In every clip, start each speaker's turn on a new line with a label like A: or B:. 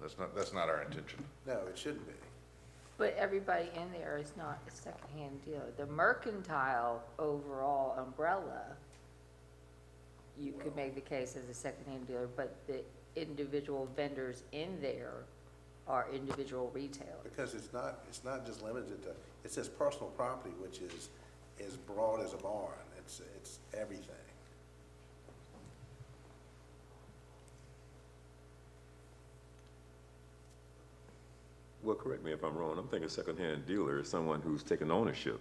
A: That's not, that's not our intention.
B: No, it shouldn't be.
C: But everybody in there is not a secondhand dealer. The mercantile overall umbrella, you could make the case as a secondhand dealer, but the individual vendors in there are individual retailers.
B: Because it's not, it's not just limited to, it says personal property, which is as broad as a barn. It's, it's everything.
D: Well, correct me if I'm wrong, I'm thinking secondhand dealer is someone who's taking ownership.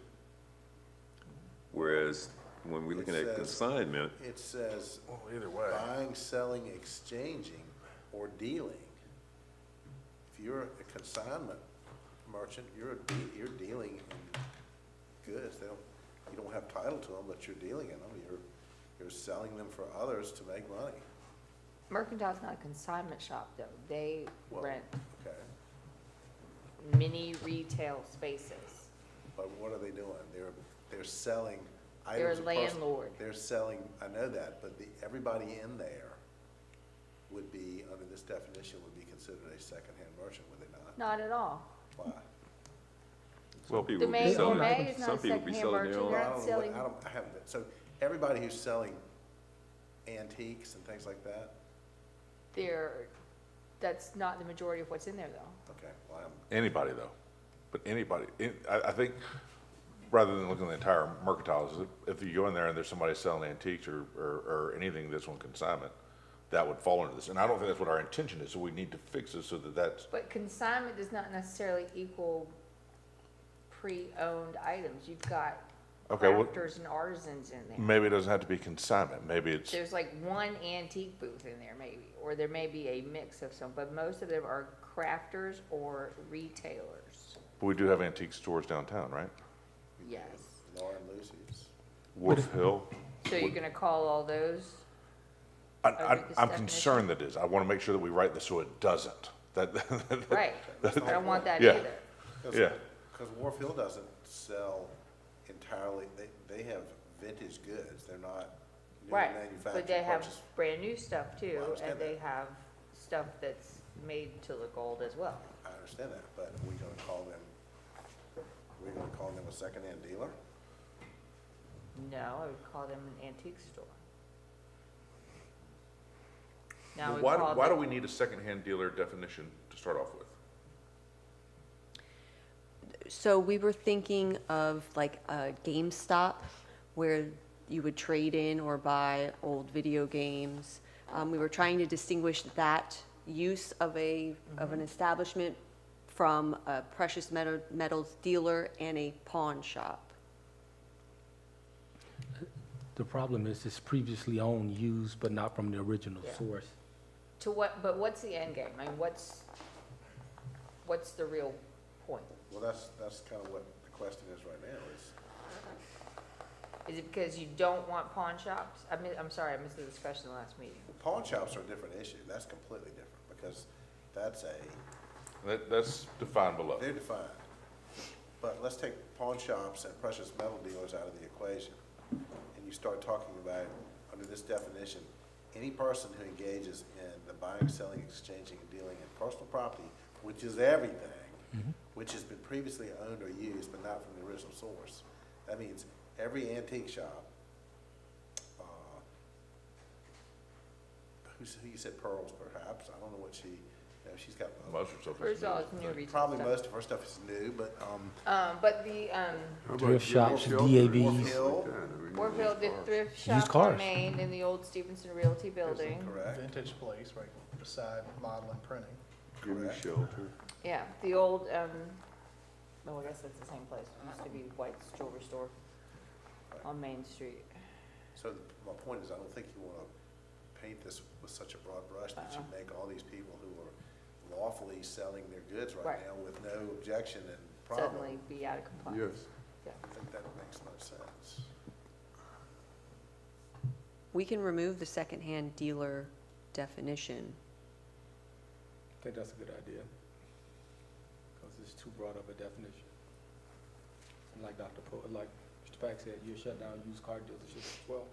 D: Whereas when we're looking
B: It says-
D: at consignment,
B: It says
A: Well, either way.
B: buying, selling, exchanging, or dealing. If you're a consignment merchant, you're, a de- you're dealing in goods. They don't, you don't have title to them, but you're dealing in them. You're, you're selling them for others to make money.
C: Mercantile's not a consignment shop, though. They
B: Well,
C: rent
B: Okay,
C: mini retail spaces.
B: but what are they doing? They're, they're selling items.
C: They're a
B: of person-
C: landlord.
B: They're selling, I know that, but the, everybody in there would be, under this definition, would be considered a secondhand merchant, would they not?
C: Not at all.
B: Why?
D: some people would be
C: Domain
D: selling,
C: Gourmet is not
D: some people would be
C: secondhand
D: selling their
C: merchandise.
B: Well, I don't know
C: They're not
D: own.
B: what-
C: selling-
B: I don't, I haven't been, so everybody who's selling antiques and things like that,
C: They're, that's not the majority of what's in there, though.
B: okay, well, I'm,
A: Anybody though, but anybody, in- I, I think, rather than looking at the entire mercantile, is if you go in there and there's somebody selling antiques or, or, or anything that's on consignment, that would fall into this, and I don't think that's what our intention is, so we need to fix this so that that's,
C: But consignment does not necessarily equal pre-owned items. You've got
A: Okay, well- Mm.
C: crafters and artisans in there.
A: maybe it doesn't have to be consignment, maybe it's,
C: There's like one antique booth in there maybe, or there may be a mix of some, but most of them are crafters or retailers.
A: we do have antique stores downtown, right?
C: Yes.
B: Lauren Lucy's.
A: Wolf Hill.
C: So you're gonna call all those?
A: I,
C: Over
A: I,
C: this
A: I'm
C: definition.
A: concerned that it is. I want to make sure that we write this so it doesn't. That, that-
C: Right. I don't want that
A: Yeah.
C: either.
A: Yeah.
B: Because Warfield doesn't sell entirely, they, they have vintage goods, they're not new
C: Right.
B: manufactured
C: But they have
B: purchase.
C: brand new stuff too,
B: Well, I understand
C: and they
B: that.
C: have stuff that's made to look old as well.
B: I understand that, but we gonna call them, we gonna call them a secondhand dealer?
C: No, I would call them an antique store. Now, we
A: Why,
C: call
A: why do
C: the-
A: we need a secondhand dealer definition to start off with?
E: So we were thinking of like a GameStop where you would trade in or buy old video games. Um, we were trying to distinguish that use of a, of an establishment from a precious metal, metals dealer and a pawn shop.
F: The problem is it's previously owned, used, but not from the original
C: Yeah.
F: source.
C: To what, but what's the end game? I mean, what's, what's the real point?
B: Well, that's, that's kind of what the question is right now, is
C: Is it because you don't want pawn shops? I mean, I'm sorry, I missed the discussion last meeting.
B: Pawn shops are a different issue. That's completely different because that's a,
A: That, that's defined below.
B: they're defined. But let's take pawn shops and precious metal dealers out of the equation. And you start talking about, under this definition, any person who engages in the buying, selling, exchanging, and dealing in personal property, which is everything, which has been previously owned or used but not from the original source. That means every antique shop, uh, who's, who you said Pearls perhaps, I don't know what she, you know, she's got.
A: Most of stuff is
C: First of all,
A: new.
C: it's new retail
B: Probably
C: stuff.
B: most of her stuff is new, but, um,
C: Um, but the, um,
F: Thrift shops, DAVs,
B: Hill,
C: Warfield, the thrift shop
F: cars.
C: remained in the old Stevenson Realty Building.
B: correct,
G: vintage place right beside model and printing.
B: correct.
C: Yeah, the old, um, oh, I guess that's the same place. It used to be White's Jewelry Store on Main Street.
B: So the- my point is, I don't think you want to paint this with such a broad brush that you make all these people who are lawfully selling their goods right
C: Right.
B: now with no objection and
C: Suddenly
B: problem.
C: be out of compliance.
B: I think that makes no sense.
E: We can remove the secondhand dealer definition.
F: I think that's a good idea, because it's too broad of a definition. And like Dr. Po, like Mr. Pack said, you shut down used car dealerships as well.